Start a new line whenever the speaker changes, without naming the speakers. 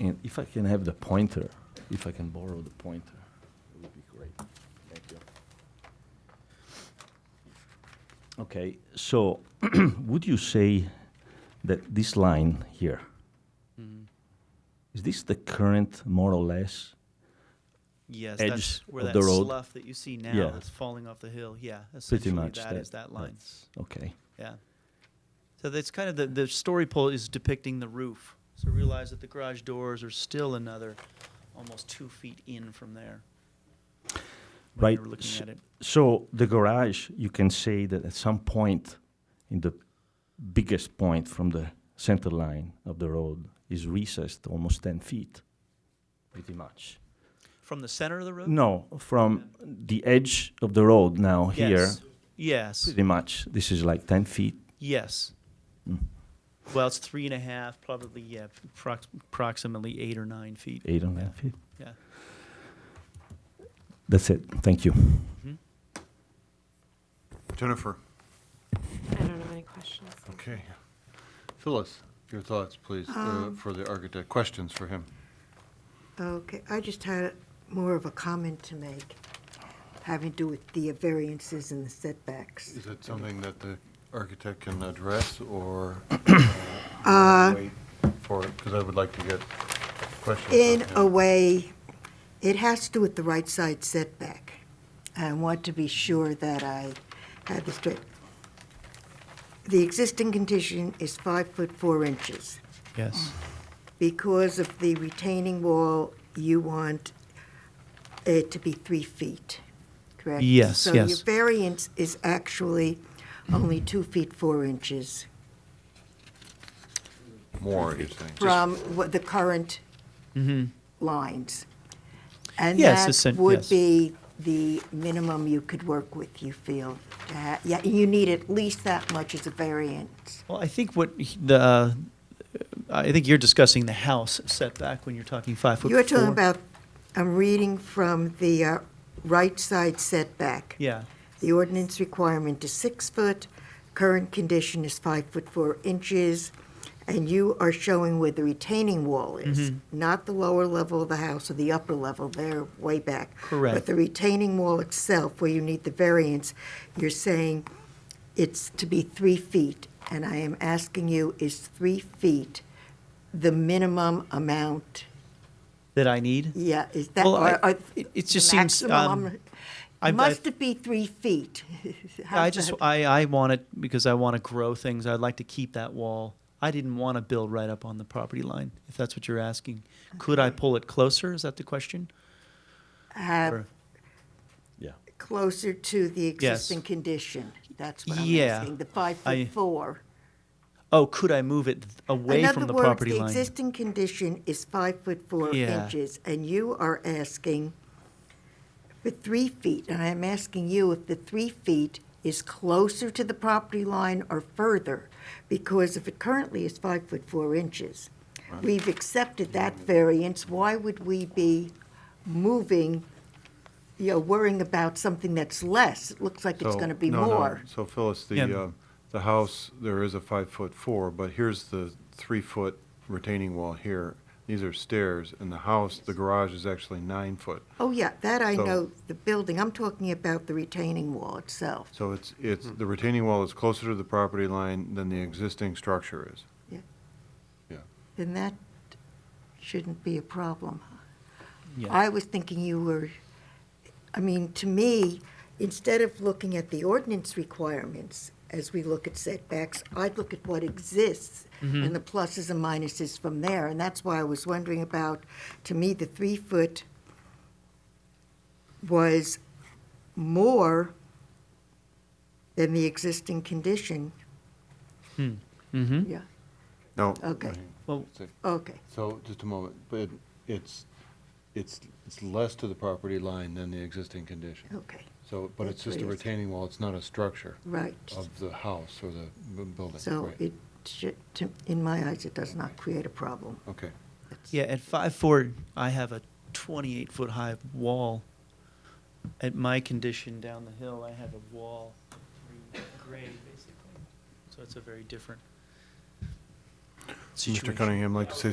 And if I can have the pointer, if I can borrow the pointer, it would be great. Thank you. Okay, so would you say that this line here,
Mm-hmm.
is this the current more or less?
Yes,
edge
that's where
of
that
the road.
slough that you see now
Yeah.
that's falling off the hill. Yeah,
Pretty
essentially
much
that is that line.
that's- Okay,
Yeah. So that's kind of the, the story pole is depicting the roof. So realize that the garage doors are still another almost two feet in from there. When
right.
You're looking
s-
at it.
So the garage, you can say that at some point, in the biggest point from the center line of the road, is recessed almost 10 feet, pretty much.
From the center of the road?
No, from the edge of the road now here,
Yes. Yes.
pretty much. This is like 10 feet.
Yes.
Mm.
Well, it's three and a half, probably, yeah, prox- approximately eight or nine feet.
Eight and a
Yeah.
half feet.
Yeah.
That's it. Thank you.
Jennifer.
I don't have any questions.
Okay. Phyllis, your thoughts, please, uh,
Um,
for the architect, questions for him.
Okay, I just had more of a comment to make, having to do with the variances and the setbacks.
Is it something that the architect can address or uh,
Uh,
wait for, because I would like to get questions
In a
from him.
way, it has to do with the right side setback. I want to be sure that I have this straight. The existing condition is five foot four inches.
Yes.
Because of the retaining wall, you want it to be three feet, correct?
Yes,
So
yes.
your variance is actually only two feet, four inches
More, you're saying.
from what the current lines. And
Yes,
that
essen-
would
yes.
be the minimum you could work with, you feel. to ha- Yeah, you need at least that much as a variance.
Well, I think what he- the, uh, I think you're discussing the house setback when you're talking five foot
You're talking
four.
about, I'm reading from the uh, right side setback.
Yeah,
The ordinance requirement is six foot, current condition is five foot four inches, and you are showing where the retaining wall is,
Mm-hmm.
not the lower level of the house or the upper level, they're way back.
Correct.
But the retaining wall itself, where you need the variance, you're saying it's to be three feet, and I am asking you, is three feet the minimum amount?
that I need.
Yeah, is that,
Well, I-
or, or
it- it just seems,
maximum?
um, I- I-
Must it be three feet?
I
How's
just,
that?
I, I want it because I want to grow things. I'd like to keep that wall. I didn't want to build right up on the property line, if that's what you're asking. Could I pull it closer? Is that the question?
have
Or-
Yeah.
closer to the existing condition. That's what I'm
Yeah.
asking, the five
I-
foot four.
Oh, could I move it away
In
from
other
the
words,
property
the
line?
existing condition is five foot four
Yeah.
inches, and you are asking for three feet. And I'm asking you if the three feet is closer to the property line or further, because if it currently is five foot four inches, we've accepted that variance, why would we be moving, you know, worrying about something that's less? It looks like it's
So-
going to be
no, no,
more.
So Phyllis,
Yeah.
the, um, the house, there is a five foot four, but here's the three foot retaining wall here. These are stairs, and the house, the garage is actually nine foot.
Oh, yeah, that I
So-
know, the building, I'm talking about the retaining wall itself.
So it's, it's, the retaining wall is closer to the property line than the existing structure is.
then that shouldn't be a problem.
Yeah.
I was thinking you were, I mean, to me, instead of looking at the ordinance requirements as we look at setbacks, I'd look at what exists and the pluses and minuses from there. And that's why I was wondering about, to me, the three foot was more than the existing condition.
mm-hmm.
Yeah,
No.
Okay.
Well-
okay.
So, just a moment, but it- it's, it's, it's less to the property line than the existing condition.
Okay,
So, but it's
Oh, That's
just a
what it is.
retaining wall, it's not a structure
right.
of the house or the bu- building.
So
Right.
it should, to- in my eyes, it does not create a problem.
Okay,
Yeah, at five four, I have a twenty-eight foot high wall. At my condition down the hill, I have a wall three grade basically, so it's a very different situation.
Mr. Cunningham, like to say